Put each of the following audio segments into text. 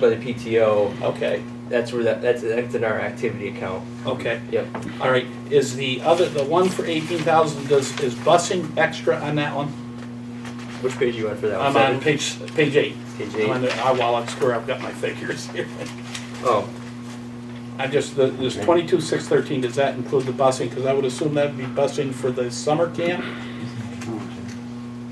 by the PTO, Okay, that's where that, that's, that's in our activity account. okay. Yep. All right, is the other, the one for eighteen thousand, does, is busing extra on that one? Which page you on for that one? I'm on page, page eight. Page I'm on eight. the, I, well, that's where I've got my figures here. Oh, I just, the- this twenty-two, six thirteen, does that include the busing? Because I would assume that'd be busing for the summer camp?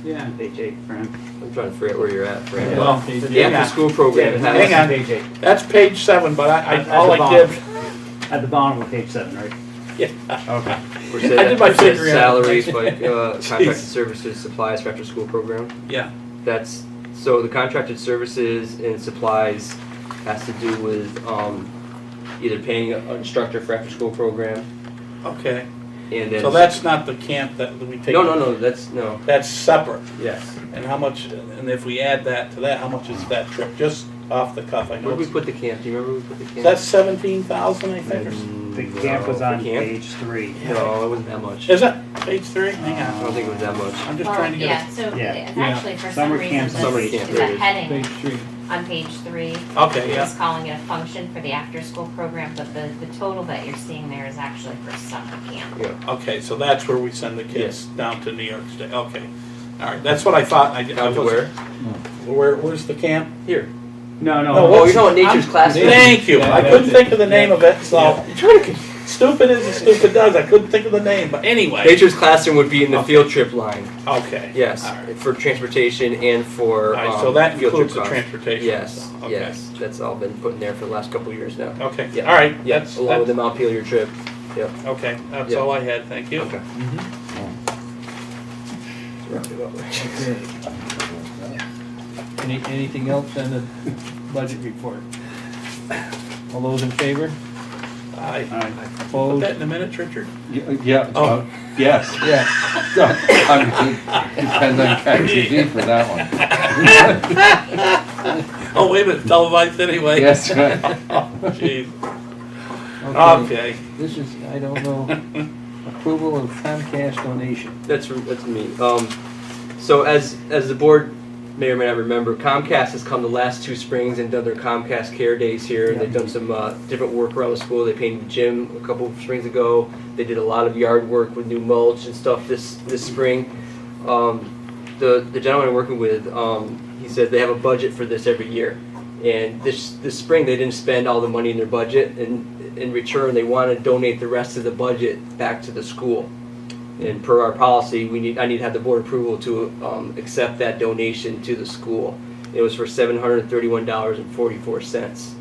Yeah, page eight, Fran. I'm trying to figure out where you're at, Fran. Well, The yeah. after-school program Yeah, has, Hang on. Page eight, That's page seven, but I, I, At the all I bottom. did, at the bottom of page seven, right? yeah, Okay. where I did said, my where said figuring. salaries, like, uh, contracted Jeez. services, supplies for after-school program. yeah, That's, so the contracted services and supplies has to do with, um, either paying an instructor for after-school program okay. and then. So that's not the camp that we take? No, no, no, that's, no, That's separate. yes. And how much, and if we add that to that, how much is that trip? Just off the cuff, I know. Where'd we it's- put the camp? Do you remember where we put the camp? That's seventeen thousand, I think, or s- The Mm, camp was no. on The camp? page three. Um, No, it wasn't that much. I Is it page three? Hang on. don't think it was that much. I'm just Well, trying to get, Yeah, so Yeah. it's Yeah. actually for some Summer reason, camp, summer this camp, is there a it is. heading on page three. a- okay, yeah, It's calling it a function for the after-school program, but the, the total that you're seeing there is actually for summer camp. okay, so that's where we send the kids down to New York State, okay. All right, that's what I thought, I did. Down to where? Where, where's the camp? Here. No, No, no, Oh, you know what nature's classroom? Thank you, I couldn't think of the name of it, so, You're trying to- stupid as the stupid does, I couldn't think of the name, but anyway, Nature's classroom would be in the field trip line. okay. Yes, All right, for transportation and for. All right, so um, that field trip includes the costs. transportation. Yes, so, okay. yes, that's all been put in there for the last couple of years now. Okay, Yeah. all right, that's, Yes, along with that's, the Montpelier trip. okay, that's Yeah. all I had, thank you. Okay. Any, anything else on the budget report? All those in favor? I, Alright. put Opposed? that in the minutes, Richard? Y- Yeah, Oh. uh, yes. Yeah, I mean, Depends on ChatGPT for that one. Oh, wait a minute, televised anyway. Oh, Yes, right. Jeez. okay. Okay, This is, I don't know, approval of Comcast donation. That's, that's me. Um, so as, as the board may or may not remember, Comcast has come the last two springs and done their Comcast Care Days here. They've done some, uh, different work around the school. They painted the gym a couple of springs ago. They did a lot of yard work with new mulch and stuff this, this spring. Um, the, the gentleman I'm working with, um, he said they have a budget for this every year. And this, this spring, they didn't spend all the money in their budget and in return, they want to donate the rest of the budget back to the school. And per our policy, we need, I need to have the board approval to um, accept that donation to the school. It was for seven hundred and thirty-one dollars and forty-four cents.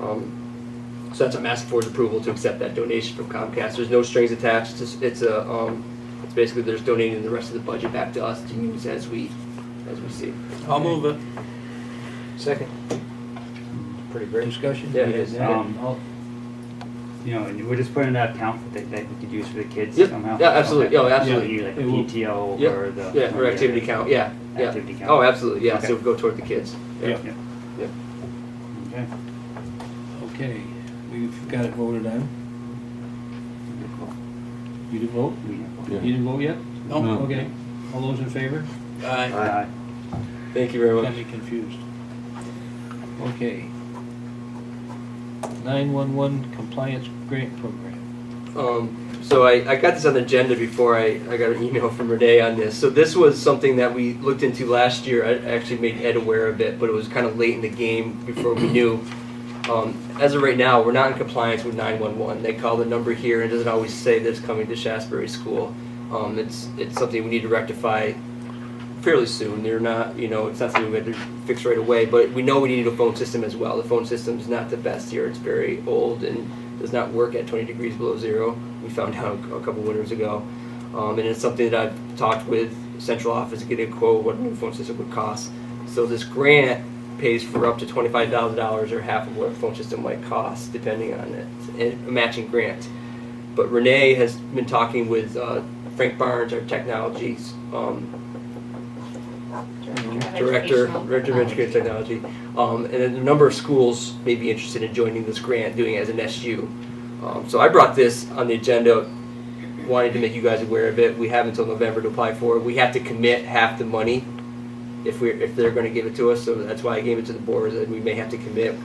Um, So that's a massive board's approval to accept that donation from Comcast. There's no strings attached. It's, it's a, um, it's basically they're just donating the rest of the budget back to us to use as we, as we see. I'll move it. Second. Pretty great. Discussion? Yeah, it is. Um, all- You know, and we're just putting that account that, that we could use for the kids Yep. somehow. Yeah, absolutely. Okay. Yeah, absolutely. You like It will- PTO Yep. or the. Yeah, for activity count, yeah, yeah. Activity count. Oh, absolutely, yeah, so Okay. it'll go toward the kids. Yeah. Okay. okay, we've got it voted on. You didn't vote? We have one. You didn't vote yet? No, No. Okay, all those in favor? I, Aye. Thank you very Got much. me confused. Okay. Nine-one-one compliance grant program. Um, so I, I got this on the agenda before I, I got an email from Renee on this. So this was something that we looked into last year. I actually made Ed aware of it, but it was kind of late in the game before we knew. Um, as of right now, we're not in compliance with 911. They call the number here and it doesn't always say that it's coming to Shasbury School. Um, it's, it's something we need to rectify fairly soon. They're not, you know, it's not something we had to fix right away, but we know we need a phone system as well. The phone system's not the best here. It's very old and does not work at 20 degrees below zero. We found out a couple winters ago. Um, and it's something that I've talked with central office to get a quote what a new phone system would cost. So this grant pays for up to $25,000 or half of what a phone system might cost, depending on it, and a matching grant. But Renee has been talking with uh, Frank Barnes, our technologies um, director, Educational director of education technology. technology, um, and then a number of schools may be interested in joining this grant, doing it as an SU. Um, so I brought this on the agenda, wanting to make you guys aware of it. We have until November to apply for it. We have to commit half the money if we, if they're gonna give it to us, so that's why I gave it to the board, that we may have to commit